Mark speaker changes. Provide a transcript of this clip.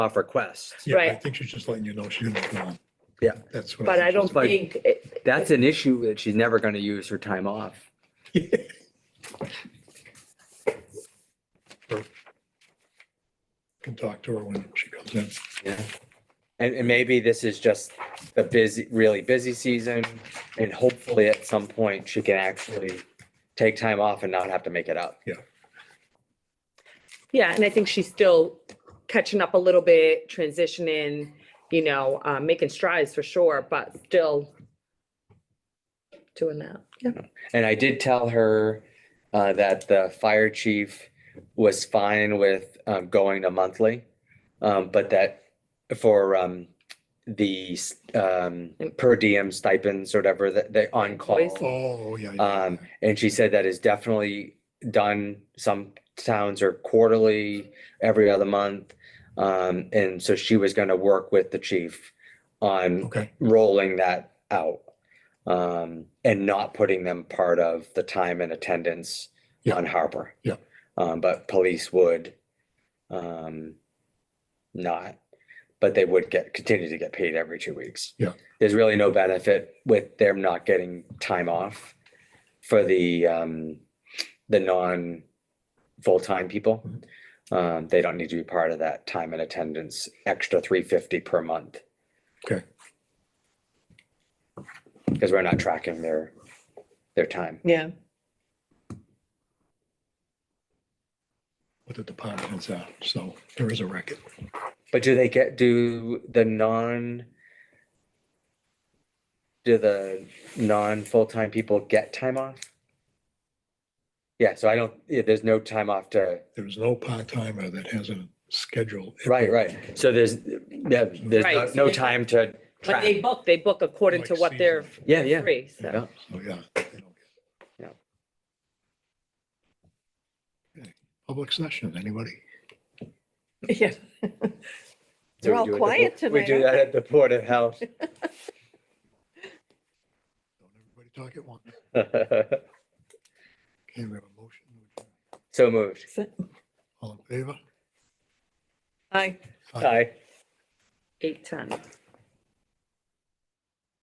Speaker 1: off request.
Speaker 2: Yeah, I
Speaker 3: Right.
Speaker 2: think she's just letting you know she's gonna be gone.
Speaker 1: Yeah.
Speaker 2: That's what.
Speaker 3: But I
Speaker 2: think
Speaker 3: don't
Speaker 1: But
Speaker 3: think, it-
Speaker 1: That's an issue that she's never going to use her time off.
Speaker 2: she's- Can talk to her when she comes in.
Speaker 1: Yeah. And, and maybe this is just the busy, really busy season and hopefully at some point she can actually take time off and not have to make it up.
Speaker 3: yeah, and I think she's still catching up a little bit, transitioning, you know, uh, making strides for sure, but still doing that. Yeah.
Speaker 1: And I did tell her uh, that the fire chief was fine with um, going to monthly, um, but that for um, the s- um, per diem stipends or whatever that they on call.
Speaker 2: Oh, yeah. yeah,
Speaker 1: Um,
Speaker 2: yeah.
Speaker 1: and she said that is definitely done. Some towns are quarterly, every other month. Um, and so she was going to work with the chief on
Speaker 2: Okay,
Speaker 1: rolling that out um, and not putting them part of the time and attendance
Speaker 2: Yeah.
Speaker 1: on Harper.
Speaker 2: Yeah.
Speaker 1: Um, but police would um, not, but they would get continue to get paid every two weeks.
Speaker 2: Yeah.
Speaker 1: There's really no benefit with them not getting time off for the um, the non full-time people.
Speaker 2: Mhm.
Speaker 1: Um, they don't need to be part of that time and attendance extra 350 per month
Speaker 2: okay.
Speaker 1: because we're not tracking their, their time.
Speaker 3: Yeah.
Speaker 2: What the department heads are, so there is a record.
Speaker 1: But do they get, do the non, do the non-full-time people get time off? Yeah, so I don't, yeah, there's no time off to,
Speaker 2: There's no part-timer that has a schedule.
Speaker 1: right, right. So there's, yeah, there's no-
Speaker 3: Right.
Speaker 1: no time to
Speaker 3: But
Speaker 1: track.
Speaker 3: they book, they book according to
Speaker 2: Like
Speaker 3: what they're
Speaker 2: seasonal.
Speaker 1: Yeah, yeah.
Speaker 3: free, so.
Speaker 1: Yeah.
Speaker 2: So, yeah. they don't get-
Speaker 1: Yeah.
Speaker 2: Okay. Public session, anybody?
Speaker 4: Yeah,
Speaker 1: So we
Speaker 4: They're all
Speaker 1: do it at the
Speaker 4: quiet
Speaker 1: Bo- We
Speaker 4: tonight,
Speaker 1: do
Speaker 4: aren't
Speaker 1: that at the Port of Health.
Speaker 2: Don't everybody talk at once. Okay, we have a motion.
Speaker 1: So moved.
Speaker 2: All in favor?
Speaker 4: hi.
Speaker 1: Aye.
Speaker 3: Eight ten.